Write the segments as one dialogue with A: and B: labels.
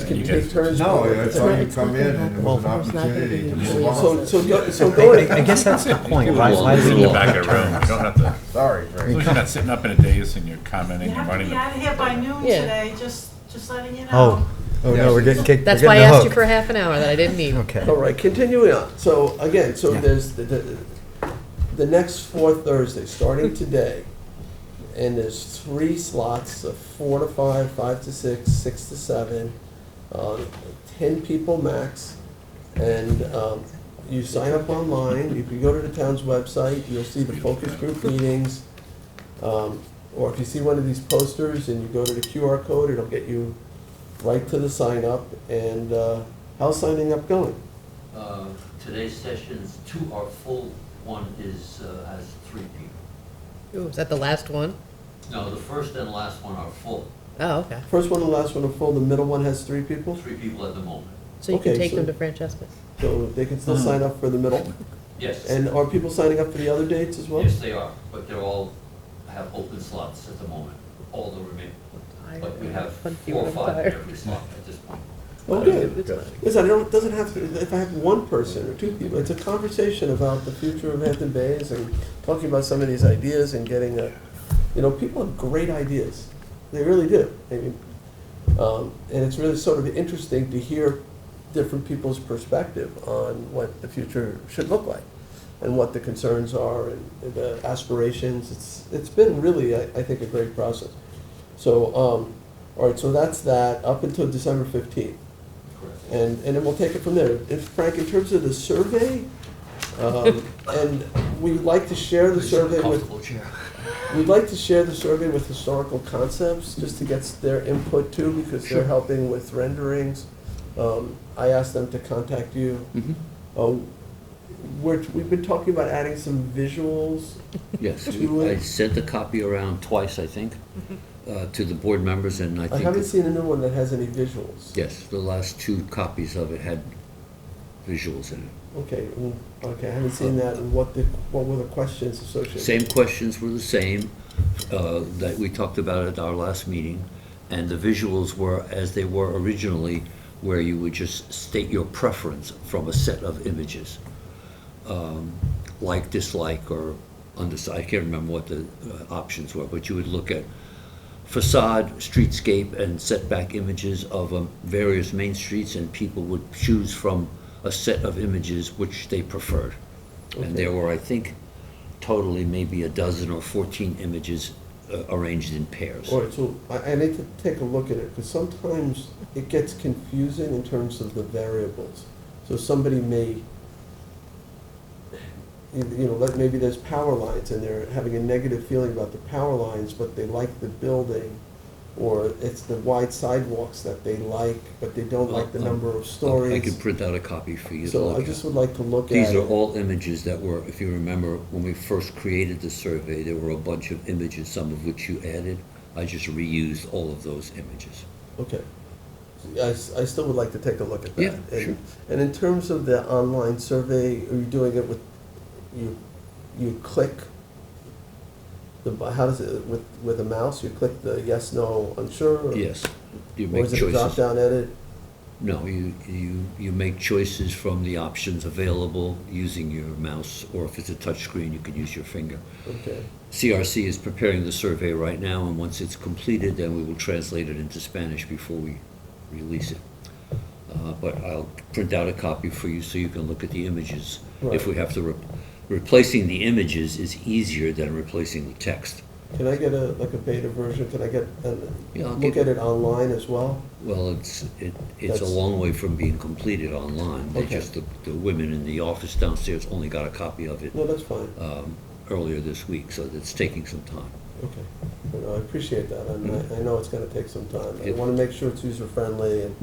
A: can
B: You
A: take
B: guys-
A: turns.
C: No,
A: with it.
C: that's how you come in and it was an
D: Well, it's not gonna
C: opportunity to
D: be
C: move
D: employees.
C: on.
A: So, so, go- so go
D: I
A: ahead.
D: guess that's the point, why, why
B: This is
D: do
B: in
D: we
B: the
D: all
B: back
D: have
B: of the room, you
D: turns?
B: don't have to, as
C: Sorry,
B: long
C: Ray.
B: as you're not sitting up in a daze and you're commenting and
E: You have to
B: running
E: be
B: the.
E: out of here by noon
F: Yeah.
E: today, just, just letting you know.
D: Oh, oh no, we're getting kicked, we're
F: That's
D: getting
F: why I
D: the
F: asked you
D: hook.
F: for half an hour that I didn't need.
A: All
D: Okay,
A: right, continuing on. So again, so
D: Yeah.
A: there's the, the, the next four Thursdays, starting today, and there's three slots of four to five, five to six, six to seven, um, ten people max. And, um, you sign up online, if you go to the town's website, you'll see the focus group meetings. Um, or if you see one of these posters and you go to the QR code, it'll get you right to the sign up. And, uh, how's signing up going?
G: Uh, Today's sessions, two are full, one is, uh, has three people.
F: Ooh, is that the last one?
G: No, the first and last one are full,
F: Oh, okay.
A: First one and last one are full, the middle one has three people,
G: three people at the moment.
F: So you can
A: Okay,
F: take
A: so-
F: them to Francesca's.
A: so they can still sign up for the middle.
G: Yes,
A: And are people signing up for the other dates as well?
G: yes, they are, but they're all, have open slots at the moment, all the remaining. But we have four or five in every slot at this point.
A: Oh, good. Listen, I don't, it doesn't have to, if I have one person or two people, it's a conversation about the future of Hampton Bays and talking about some of these ideas and getting a, you know, people have great ideas. They really do. I mean, um, and it's really sort of interesting to hear different people's perspective on what the future should look like and what the concerns are and the aspirations. It's, it's been really, I, I think, a great process. So, um, all right, so that's that up until December fifteenth.
G: Correct.
A: And, and then we'll take it from there. If, Frank, in terms of the survey, um, and we'd like to share the survey with,
G: Comfortable chair.
A: we'd like to share the survey with historical concepts, just to get their input too, because they're helping with renderings. Um, I asked them to contact you.
H: Mhm.
A: Uh, we're, we've been talking about adding some visuals.
H: Yes,
A: Do
H: we-
A: you
H: I
A: want-
H: sent the copy around twice, I think, uh, to the board members, and I
A: I
H: think,
A: haven't
H: it-
A: seen a new one that has any visuals.
H: yes, the last two copies of it had visuals in it.
A: Okay, mm, okay, I haven't seen that, and what the, what were the questions associated?
H: Same questions were the same uh, that we talked about at our last meeting, and the visuals were as they were originally, where you would just state your preference from a set of images. um, like, dislike, or underside, I can't remember what the uh, options were, but you would look at facade, streetscape, and setback images of um, various main streets, and people would choose from a set of images which they preferred. And there were, I think, totally maybe a dozen or 14 images uh, arranged in pairs.
A: All right, so I, I need to take a look at it, because sometimes it gets confusing in terms of the variables. So somebody may, you you know, like maybe there's power lines, and they're having a negative feeling about the power lines, but they like the building, or it's the wide sidewalks that they like, but they don't like the
H: Well,
A: number of
H: Oh, I can
A: stories.
H: print out a copy for you to
A: So
H: look
A: I
H: at.
A: just would like to look at
H: These are
A: it.
H: all images that were, if you remember, when we first created the survey, there were a bunch of images, some of which you added. I just reused all of those images.
A: Okay. I, s- I still would like to take a look at that.
H: Yeah,
A: And-
H: sure.
A: And in terms of the online survey, are you doing it with, you, you click the, bu- how does it, with, with a mouse, you click the yes, no, unsure? or-
H: Yes, you
A: Or
H: make
A: is it a
H: choices.
A: drop-down edit?
H: No, you, you, you make choices from the options available using your mouse, or if it's a touchscreen, you can use your finger.
A: Okay,
H: CRC is preparing the survey right now, and once it's completed, then we will translate it into Spanish before we release it. Uh, But I'll print out a copy for you so you can look at the images. If we have to, re- replacing the images is easier than replacing the text.
A: can I get a, like a beta version, can I get, uh,
H: Yeah, I'll
A: look
H: get-
A: at it online as well?
H: Well, it's, it- it's a
A: That's-
H: long way from being completed online. They
A: Okay.
H: just, the the women in the office downstairs only got a copy of it
A: No, that's fine,
H: um, earlier this week, so it's taking some time.
A: okay. You know, I appreciate that, and I, I know it's gonna take some time. I
H: It-
A: wanna make sure it's user-friendly and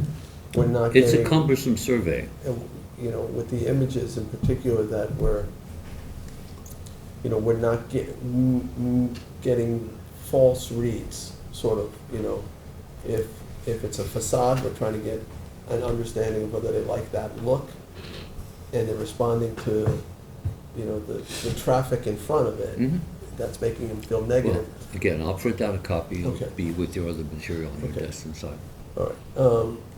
A: we're not getting.
H: It's a cumbersome survey.
A: and, you know, with the images in particular that were, you know, we're not get, mm, mm, getting false reads, sort of, you know. If, if it's a facade, we're trying to get an understanding of whether they like that look, and they're responding to, you know, the, the traffic in front of it,
H: Mhm.
A: that's making them feel
H: Well,
A: negative.
H: again, I'll print out a copy, it'll
A: Okay.
H: be with your other material on your
A: Okay.
H: desk inside.
A: All right, um,